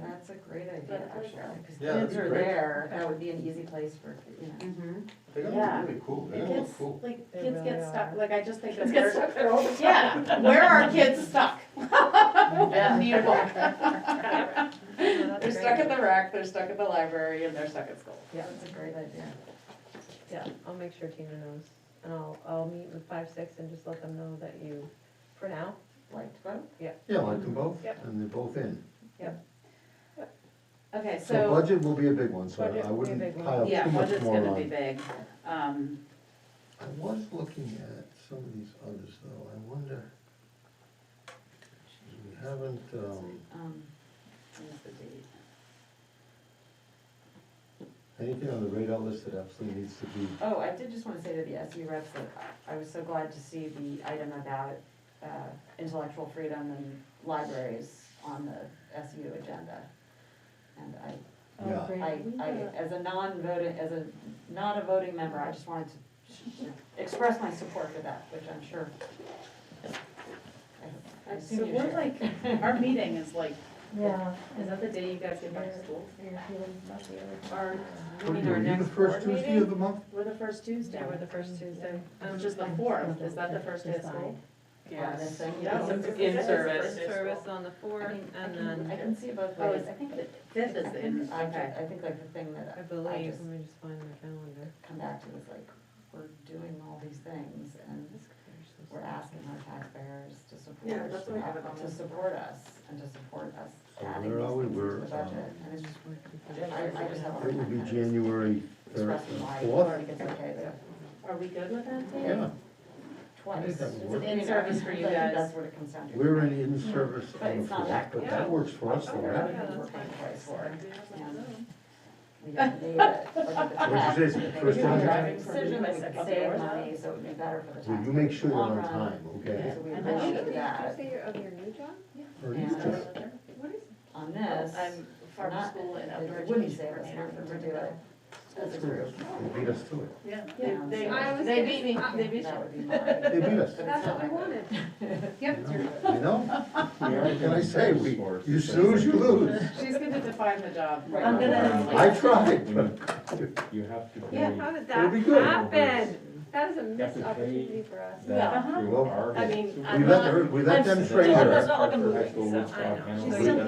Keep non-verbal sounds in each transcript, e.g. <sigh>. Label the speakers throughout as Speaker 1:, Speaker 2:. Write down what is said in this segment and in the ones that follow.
Speaker 1: That's a great idea,
Speaker 2: But-
Speaker 1: actually, because
Speaker 3: Yeah, that'd
Speaker 1: kids
Speaker 3: be
Speaker 1: are
Speaker 3: great.
Speaker 1: there.
Speaker 2: That would be an easy place for, you know.
Speaker 1: Mhm.
Speaker 3: They're
Speaker 2: Yeah.
Speaker 3: gonna be really cool, they're gonna look
Speaker 4: Kids,
Speaker 3: cool.
Speaker 4: like,
Speaker 5: They
Speaker 4: kids
Speaker 5: really
Speaker 4: get stuck,
Speaker 5: are.
Speaker 4: like, I just think of
Speaker 2: Kids get
Speaker 4: where,
Speaker 2: stuck there all the time.
Speaker 4: yeah, where are kids stuck? Need a <laughs> book.
Speaker 5: Oh,
Speaker 1: They're stuck at the rack, they're stuck at the library, and they're stuck at school.
Speaker 5: Yeah.
Speaker 1: That's a great idea.
Speaker 5: Yeah, I'll make sure Tina knows, and I'll, I'll meet with five, six and just let them know that you, for now,
Speaker 1: Like to vote?
Speaker 3: Yeah, like them both,
Speaker 4: Yep.
Speaker 3: and they're both in.
Speaker 2: Okay,
Speaker 3: So
Speaker 2: so,
Speaker 3: budget will be a big one, so
Speaker 5: Budget
Speaker 3: I-
Speaker 5: will
Speaker 3: I
Speaker 5: be a
Speaker 3: wouldn't
Speaker 5: big one.
Speaker 3: pile
Speaker 2: yeah,
Speaker 3: too much
Speaker 2: budget's
Speaker 3: more
Speaker 2: gonna be
Speaker 3: on.
Speaker 2: big. Um,
Speaker 3: I was looking at some of these others though, I wonder. We haven't, um,
Speaker 2: um, what's the date?
Speaker 3: anything on the radar list that absolutely needs to be,
Speaker 2: Oh, I did just wanna say to the SU reps that I was so glad to see the item about, uh, intellectual freedom and libraries on the SU agenda. And I
Speaker 3: yeah.
Speaker 2: I, I, as a non-voting, as a, not a voting member, I just wanted to to express my support for that, which I'm sure. I- I
Speaker 4: So
Speaker 2: assume you
Speaker 4: we're
Speaker 2: share.
Speaker 4: like, our meeting is like,
Speaker 5: Yeah.
Speaker 4: is that the day you guys get back to school? Our,
Speaker 3: What
Speaker 4: I
Speaker 3: are
Speaker 4: mean,
Speaker 3: you,
Speaker 4: our
Speaker 3: are you the
Speaker 4: next
Speaker 3: first
Speaker 4: board
Speaker 3: Tuesday of
Speaker 4: meeting?
Speaker 3: the month?
Speaker 4: We're the first Tuesday,
Speaker 5: Yeah, we're the first Tuesday. Um,
Speaker 4: which is the fourth, is that the first day of school?
Speaker 2: Yeah, this thing, you
Speaker 4: Yeah,
Speaker 2: know,
Speaker 4: it's-
Speaker 2: it's-
Speaker 4: it's-
Speaker 2: it's-
Speaker 5: Service,
Speaker 4: it's-
Speaker 5: service on the
Speaker 2: I
Speaker 5: fourth,
Speaker 2: mean, I
Speaker 5: and
Speaker 2: can, I
Speaker 5: then,
Speaker 2: can see it both
Speaker 4: Oh,
Speaker 2: ways,
Speaker 4: it's-
Speaker 2: I think that.
Speaker 4: Fifth is
Speaker 2: I
Speaker 4: the,
Speaker 2: think-
Speaker 4: in-
Speaker 2: I
Speaker 4: Mm-hmm. okay.
Speaker 2: ju- I think like the thing that
Speaker 5: I
Speaker 2: I
Speaker 5: believe,
Speaker 2: just
Speaker 5: let me just find my calendar.
Speaker 2: come back to is like, we're doing all these things and we're asking our taxpayers to
Speaker 4: Yeah,
Speaker 2: support,
Speaker 4: that's what I have it on.
Speaker 2: to support us and to support us
Speaker 3: So
Speaker 2: adding these
Speaker 3: where are we?
Speaker 2: things into
Speaker 3: We're,
Speaker 2: the budget.
Speaker 3: um,
Speaker 2: And it's just I- I just have a hard
Speaker 3: It will
Speaker 2: time kind
Speaker 3: be
Speaker 2: of
Speaker 3: January third
Speaker 2: expressing why
Speaker 3: and
Speaker 2: I
Speaker 3: fourth.
Speaker 2: think it's okay to
Speaker 4: Are we good with that date?
Speaker 3: Yeah,
Speaker 2: twice.
Speaker 3: think that would
Speaker 2: It's
Speaker 3: work.
Speaker 2: an in-service for you guys. That's what it comes down to.
Speaker 3: we're in in-service
Speaker 2: But
Speaker 3: on the
Speaker 2: it's not
Speaker 3: fourth,
Speaker 2: that-
Speaker 3: but
Speaker 4: yeah.
Speaker 3: that works for us
Speaker 2: Oh,
Speaker 3: though,
Speaker 2: we're
Speaker 3: right?
Speaker 5: Yeah,
Speaker 2: we're
Speaker 5: that's
Speaker 2: paying
Speaker 5: fine.
Speaker 2: twice for it.
Speaker 4: Yeah.
Speaker 2: We don't need it. What'd
Speaker 3: What'd you say, first
Speaker 4: time?
Speaker 2: Driving decision, we
Speaker 4: Second
Speaker 2: could save
Speaker 4: hour.
Speaker 2: money, so it would be better for the
Speaker 3: Well,
Speaker 2: taxpayer.
Speaker 3: you make sure
Speaker 2: in
Speaker 3: you're
Speaker 2: the
Speaker 3: on
Speaker 2: long run.
Speaker 3: time, okay?
Speaker 2: So we
Speaker 4: Yeah.
Speaker 2: would
Speaker 4: And
Speaker 2: not
Speaker 4: then-
Speaker 2: do that.
Speaker 5: say you're of your new job?
Speaker 3: Or you
Speaker 2: And
Speaker 3: just-
Speaker 2: on this,
Speaker 4: I'm farm
Speaker 2: not-
Speaker 4: school and outdoor
Speaker 2: it wouldn't
Speaker 4: education
Speaker 2: save us
Speaker 4: coordinator
Speaker 2: money
Speaker 4: for
Speaker 2: to do it.
Speaker 4: Riverview.
Speaker 2: As a group.
Speaker 3: They beat us to it.
Speaker 4: Yeah.
Speaker 2: Yeah.
Speaker 4: They,
Speaker 2: I
Speaker 4: they,
Speaker 2: was
Speaker 4: they beat me, they beat
Speaker 2: That
Speaker 4: you.
Speaker 2: would be mine.
Speaker 3: They beat us.
Speaker 2: That's what we wanted.
Speaker 4: Yep.
Speaker 3: You know? What can I say? We, you snooze, you lose.
Speaker 4: She's gonna define the job.
Speaker 2: Right.
Speaker 4: I'm gonna.
Speaker 3: I
Speaker 6: <laughs>
Speaker 3: tried.
Speaker 6: You have to pay
Speaker 5: Yeah, how did
Speaker 3: It'll be
Speaker 5: that
Speaker 3: good.
Speaker 5: happen? That is a
Speaker 6: You have
Speaker 5: missed
Speaker 6: to pay-
Speaker 5: opportunity for us.
Speaker 6: that
Speaker 4: Uh-huh.
Speaker 6: through our.
Speaker 5: I mean,
Speaker 6: supervisor.
Speaker 3: We let her, we let them train her.
Speaker 6: That's not like a movie,
Speaker 4: She's still here.
Speaker 2: Oh,
Speaker 4: I'm
Speaker 6: They
Speaker 4: still
Speaker 6: don't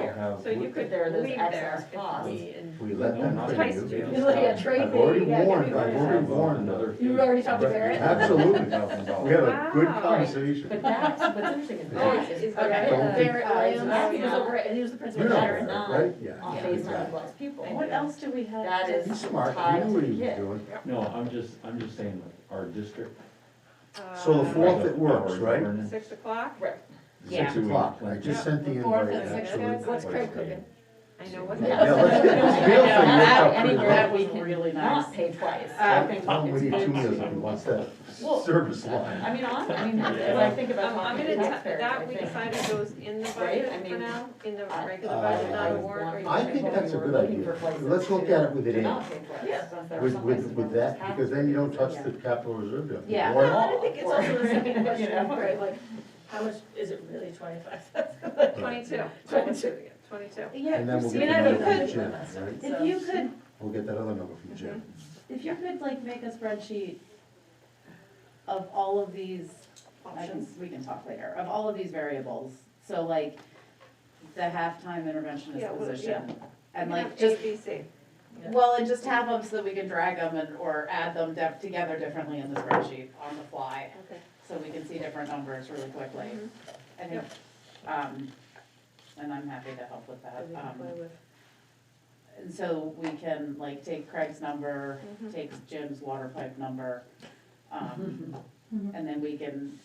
Speaker 4: here.
Speaker 6: have.
Speaker 5: So you could
Speaker 2: But there are
Speaker 5: leave
Speaker 2: those
Speaker 5: there
Speaker 2: excess
Speaker 5: if
Speaker 2: costs.
Speaker 5: we, and
Speaker 3: We let them
Speaker 5: Twice
Speaker 3: train
Speaker 5: you.
Speaker 3: you.
Speaker 5: You
Speaker 2: look at
Speaker 3: I've already warned, I've already warned her.
Speaker 6: You already
Speaker 2: talked to Barrett?
Speaker 3: Absolutely. We had a good
Speaker 5: Wow.
Speaker 2: But
Speaker 3: conversation.
Speaker 2: that's, what's interesting is
Speaker 3: Oh,
Speaker 2: that is.
Speaker 5: is that
Speaker 3: Don't-
Speaker 2: Barrett Williams,
Speaker 4: Uh,
Speaker 2: he was over, he was the
Speaker 3: You
Speaker 2: principal
Speaker 3: know,
Speaker 2: at Barrett
Speaker 3: Barrett, right?
Speaker 2: Nine on
Speaker 3: Yeah.
Speaker 2: Bayside
Speaker 3: exactly.
Speaker 2: Plus People.
Speaker 4: What else do we have?
Speaker 2: That
Speaker 4: to-
Speaker 2: is-
Speaker 3: He's smart,
Speaker 2: Tied
Speaker 3: he knew
Speaker 2: to
Speaker 3: what he
Speaker 2: the
Speaker 3: was
Speaker 2: kid.
Speaker 3: doing.
Speaker 6: No, I'm just, I'm just saying, like, our district.
Speaker 3: So the
Speaker 5: uh,
Speaker 3: fourth it works,
Speaker 6: our
Speaker 3: right?
Speaker 6: governance,
Speaker 5: Six o'clock?
Speaker 4: Yeah.
Speaker 3: Six o'clock, I just sent the
Speaker 4: The fourth
Speaker 3: invite.
Speaker 4: and sixth,
Speaker 3: actually.
Speaker 4: guys?
Speaker 2: What's Craig cooking?
Speaker 5: I know what's
Speaker 2: Yeah. <laughs>
Speaker 3: Yeah, let's get this bill
Speaker 4: Yeah,
Speaker 3: thing worked
Speaker 4: that-
Speaker 3: out
Speaker 4: I
Speaker 3: pretty
Speaker 2: anywhere
Speaker 4: think
Speaker 3: well.
Speaker 4: that
Speaker 2: well.
Speaker 4: we can really nice.
Speaker 2: Not pay twice. I
Speaker 4: Uh,
Speaker 2: think
Speaker 3: Tom, we
Speaker 2: it's
Speaker 3: need
Speaker 2: paid
Speaker 3: two meals
Speaker 2: twice.
Speaker 3: and wants that
Speaker 2: Well,
Speaker 3: service line.
Speaker 2: I mean, on, I mean, as I think about
Speaker 5: Um, I'm
Speaker 2: talking to
Speaker 5: gonna, ta-
Speaker 2: taxpayers, I
Speaker 5: that we
Speaker 2: think.
Speaker 5: decided goes in the
Speaker 2: Right, I
Speaker 5: budget for
Speaker 2: mean,
Speaker 5: now, in the
Speaker 2: I-
Speaker 5: regular
Speaker 3: Uh,
Speaker 5: budget, not a
Speaker 3: I-
Speaker 5: warrant. or
Speaker 3: I
Speaker 5: anything.
Speaker 3: think that's
Speaker 2: We
Speaker 3: a
Speaker 2: were
Speaker 3: good
Speaker 2: looking
Speaker 3: idea.
Speaker 2: for places
Speaker 3: Let's look at it with
Speaker 2: to
Speaker 3: an
Speaker 2: not
Speaker 3: angle,
Speaker 2: pay twice, since there are
Speaker 3: with,
Speaker 2: some
Speaker 3: with,
Speaker 2: places where
Speaker 3: with
Speaker 2: we
Speaker 3: that,
Speaker 2: just have
Speaker 3: because
Speaker 2: to
Speaker 3: then you
Speaker 2: do
Speaker 3: don't
Speaker 2: it.
Speaker 3: touch
Speaker 2: Yeah.
Speaker 3: the capital reserve deficit.
Speaker 4: Yeah.
Speaker 3: Why
Speaker 2: <laughs> Well, I
Speaker 3: not?
Speaker 2: think it's also the
Speaker 4: <laughs>
Speaker 2: second question, right, like,
Speaker 4: how much, is it really twenty-five
Speaker 5: Twenty-two. <laughs>
Speaker 4: Twenty-two.
Speaker 5: Twenty-two.
Speaker 4: Yeah,
Speaker 3: And then we'll get
Speaker 5: Christina,
Speaker 3: that
Speaker 5: you
Speaker 3: number from
Speaker 5: could-
Speaker 3: Jim, right?
Speaker 4: If you could,
Speaker 3: We'll get that other number from Jim.
Speaker 2: Mm-hmm.
Speaker 4: if you could like make a spreadsheet of all of these options, we can talk later, of all of these variables. So like the halftime
Speaker 5: Yeah,
Speaker 4: interventionist
Speaker 5: well,
Speaker 4: position and
Speaker 5: We
Speaker 4: like
Speaker 5: have
Speaker 4: just,
Speaker 5: ABC.
Speaker 4: well, and just have them so that we can drag them and, or add them def- together differently in the spreadsheet on the fly.
Speaker 5: Okay.
Speaker 4: So we can see different numbers really quickly.
Speaker 5: Mhm.
Speaker 4: I think, um, and I'm happy to help with that.
Speaker 5: That we can
Speaker 4: Um,
Speaker 5: play with.
Speaker 4: And so we can like take Craig's number,
Speaker 5: Mhm.
Speaker 4: take Jim's water pipe number. um, And then we can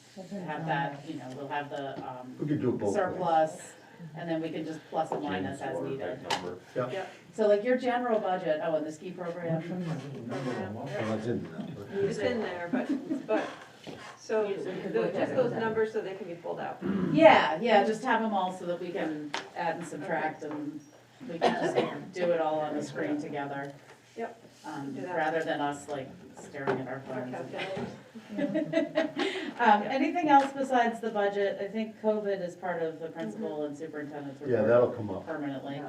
Speaker 4: have that, you know, we'll have the um,
Speaker 3: We could do it both ways.
Speaker 4: surplus, and then we can just plus and minus as
Speaker 6: James
Speaker 4: needed.
Speaker 6: Warwick, that number.
Speaker 4: So like your general budget, oh, and the ski
Speaker 3: I'm
Speaker 4: program,
Speaker 3: trying to remember them all. Well, it's in the number.
Speaker 5: It's in there, but, but, so,
Speaker 2: You could
Speaker 5: the-
Speaker 2: look at
Speaker 5: just
Speaker 2: it.
Speaker 5: those numbers so they can be pulled out.
Speaker 4: yeah, yeah, just have them all so that we can add and subtract and we can just do it all on the screen together.
Speaker 5: Yep.
Speaker 4: Um,
Speaker 5: Do that.
Speaker 4: Rather than us like staring at our
Speaker 5: Our
Speaker 4: phones. and-
Speaker 5: calculators.
Speaker 4: Um, anything else besides the budget? I think COVID is part of the principal and superintendent's
Speaker 3: Yeah,
Speaker 4: report
Speaker 3: that'll come up.
Speaker 4: permanently.